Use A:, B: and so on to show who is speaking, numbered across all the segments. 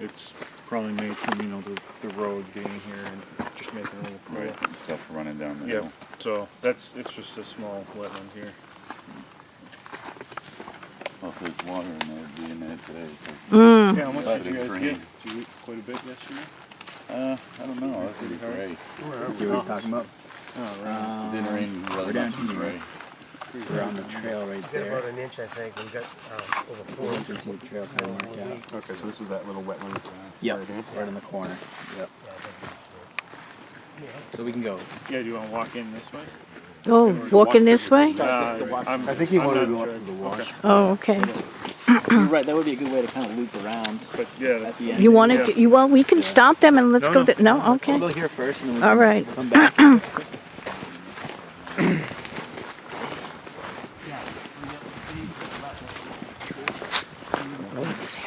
A: It's probably made from, you know, the, the road getting here and just making a little
B: Right,
A: pool.
B: and stuff running down the
A: Yeah,
B: hill.
A: so that's, it's just a small wetland here.
B: Well, if there's water in there, it'd be in there today. 'cause,
C: Hmm.
A: Yeah, how much
B: Yeah,
A: did you
B: it's
A: guys
B: green.
A: get? Did you get quite a bit yesterday?
B: Uh, I don't know, that's pretty gray.
C: See what he's talking about?
A: Oh,
B: It didn't rain really
C: we're
B: much
C: down here.
B: today.
C: We're on the trail right
D: Got
C: there.
D: about an inch, I think, we got uh, over four.
C: You can see the trail kind of marked out.
E: Okay, so this is that little wetland that's around.
C: Yep, right in the corner.
E: Yep.
C: So we can go.
A: Yeah, do you wanna walk in this way?
F: Oh, walking this way?
E: I think he wanted to go up to the wash.
F: Oh, okay.
C: You're right, that would be a good way to kind of loop around
A: But yeah,
C: at
A: that's-
C: the end.
F: You want to, you, well, we can stop them and let's
A: No,
F: go,
A: no.
F: th- no, okay.
C: We'll go here first and then we
F: All
C: can
F: right.
C: come back.
F: Let's see.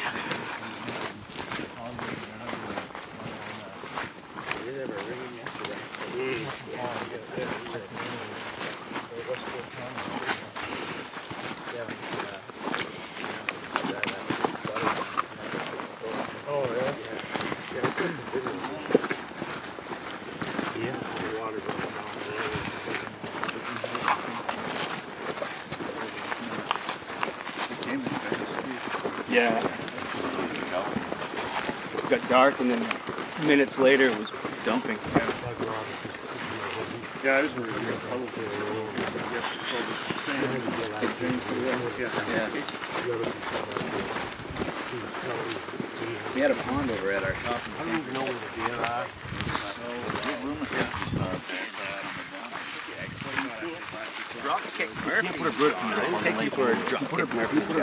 D: Oh, yeah? Yeah, we took the video. The water going
C: Yeah, it got dark and then minutes later it was dumping.
D: down, like Rob.
A: yeah, I was worried about puddle there. Yeah, it's all the sand.
C: Yeah. We had a pond over at our shop.
D: I don't even know where the deer are.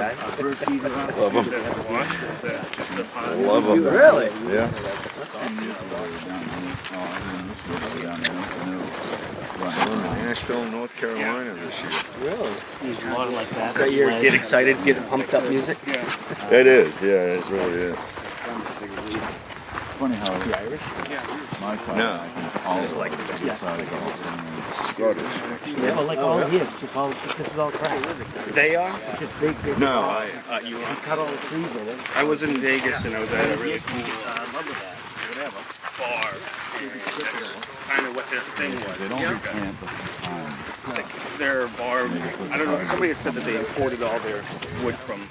B: Love
A: Is that a wash or is that just a pond?
B: Love them.
C: Really?
B: Yeah. Nashville, North Carolina this year.
C: Use water like that. Is that your get excited, get pumped up music?
A: Yeah,
B: It is, yeah, it really is. Funny how
C: Irish?
B: my side, all of like the side of the Scottish.
C: Yeah, well, like all of
D: Just all, this is all crap.
G: They are?
D: Just big, big.
B: No, I,
G: Uh, you are.
D: Cut all the trees in it.
G: I was in Vegas and I was at a really cool
B: Uh,
G: bar. and That's kind of what their thing was.
B: they don't
G: Yeah.
B: replant the time.
G: Like their bar, I don't know, somebody had said that they imported all their wood from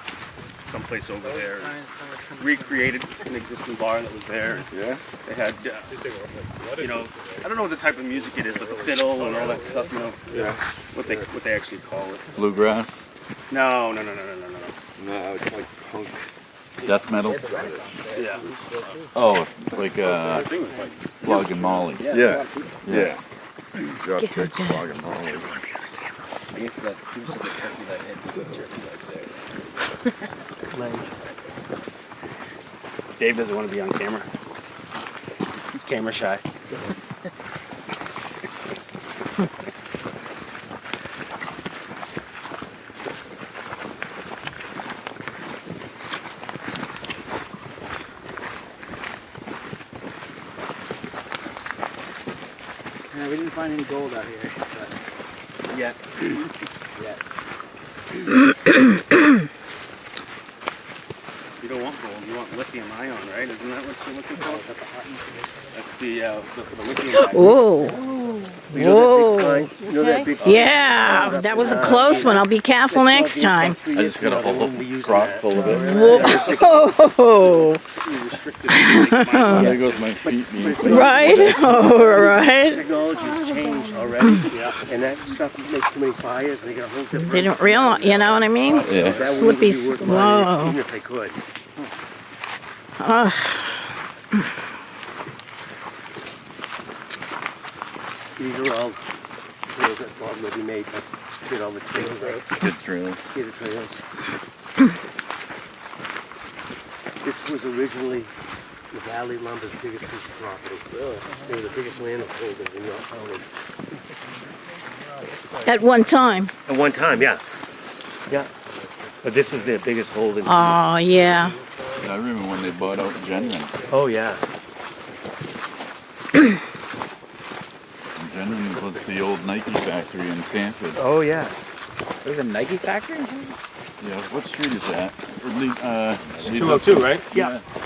G: someplace over there. Recreated an existing bar that was there.
B: Yeah?
G: They had, uh, you know, I don't know what the type of music it is, but the fiddle and all that stuff, you know. Yeah. What they, what they actually call it.
B: Bluegrass,
G: No, no, no, no, no, no, no.
B: death metal.
G: Yeah.
B: Oh, like uh, Flog and Molly. Yeah, yeah. Drop
F: Yeah, kicks, okay.
B: and Molly.
C: I guess that proves that the turkey leg had good turkey legs there.
G: Dave doesn't want to be on camera. He's camera shy.
C: Yeah, we didn't find any gold out here, but yet. yet.
G: You don't want gold, you want lithium ion, right? Isn't that what you're looking for? That's the, uh, the, the lithium ion.
F: Whoa,
G: You know that
F: whoa.
G: big pine- You know that big
F: Yeah, that
A: Uh,
F: was a close one. I'll be careful next time.
B: I just got a whole crop full of it.
F: Whoa,
G: restricted like, mine.
B: There goes my feet being
F: right, all right.
D: Technology's changed already, yeah, and that stuff makes too many fires, they got a whole different.
F: Didn't realize, you know what I mean?
B: Yeah.
D: That wouldn't
F: Slippy
D: be worth buying,
F: slow.
D: Even if they could. These are all trails that Bob will be made, but did all the trails, right?
B: Good trail.
D: Did the trails. This was originally the Valley Lumber's biggest piece of property. They were the biggest landholders in York County.
F: At one time.
H: At one time, yeah. Yeah. But this was their biggest holding.
F: Oh, yeah.
B: I remember when they bought out Genuine.
H: Oh, yeah.
B: Genuine was the old Nike factory in Sanford.
H: Oh, yeah.
C: There's a Nike factory?
B: Yeah, what street is that? Or Le- uh, Lee's-
H: right? Yeah.
B: Yeah.